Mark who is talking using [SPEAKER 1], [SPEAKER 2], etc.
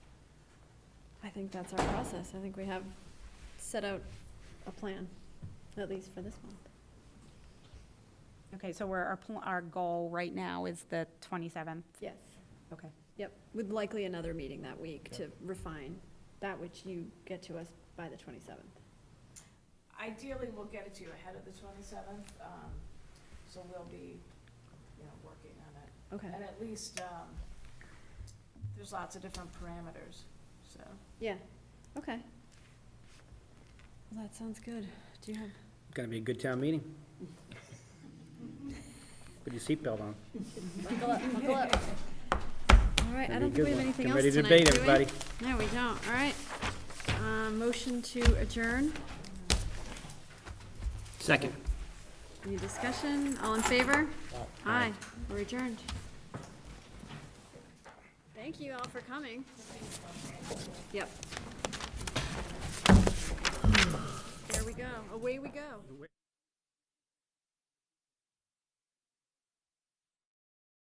[SPEAKER 1] think that's our process. I think we have set out a plan, at least for this month.
[SPEAKER 2] Okay, so we're, our, pl- our goal right now is the 27th.
[SPEAKER 1] Yes.
[SPEAKER 2] Okay.
[SPEAKER 1] Yep, with likely another meeting that week to refine that which you get to us by the 27th.
[SPEAKER 3] Ideally, we'll get it to you ahead of the twenty-seventh, um, so we'll be, you know, working on it.
[SPEAKER 1] Okay.
[SPEAKER 3] And at least, um, there's lots of different parameters, so.
[SPEAKER 1] Yeah, okay. Well, that sounds good. Do you have?
[SPEAKER 4] Gonna be a good town meeting. Put your seatbelt on.
[SPEAKER 1] Buckle up, buckle up. All right, I
[SPEAKER 4] Gonna be a
[SPEAKER 1] don't
[SPEAKER 4] good
[SPEAKER 1] think we have
[SPEAKER 4] one.
[SPEAKER 1] anything else
[SPEAKER 4] Get
[SPEAKER 1] tonight,
[SPEAKER 4] ready to
[SPEAKER 1] do we?
[SPEAKER 4] debate, everybody.
[SPEAKER 1] No, we don't, all right. Uh, motion to adjourn,
[SPEAKER 4] Second.
[SPEAKER 1] any discussion, all in favor? Aye, we're adjourned. Thank you all for coming. Yep. There we go, away we go.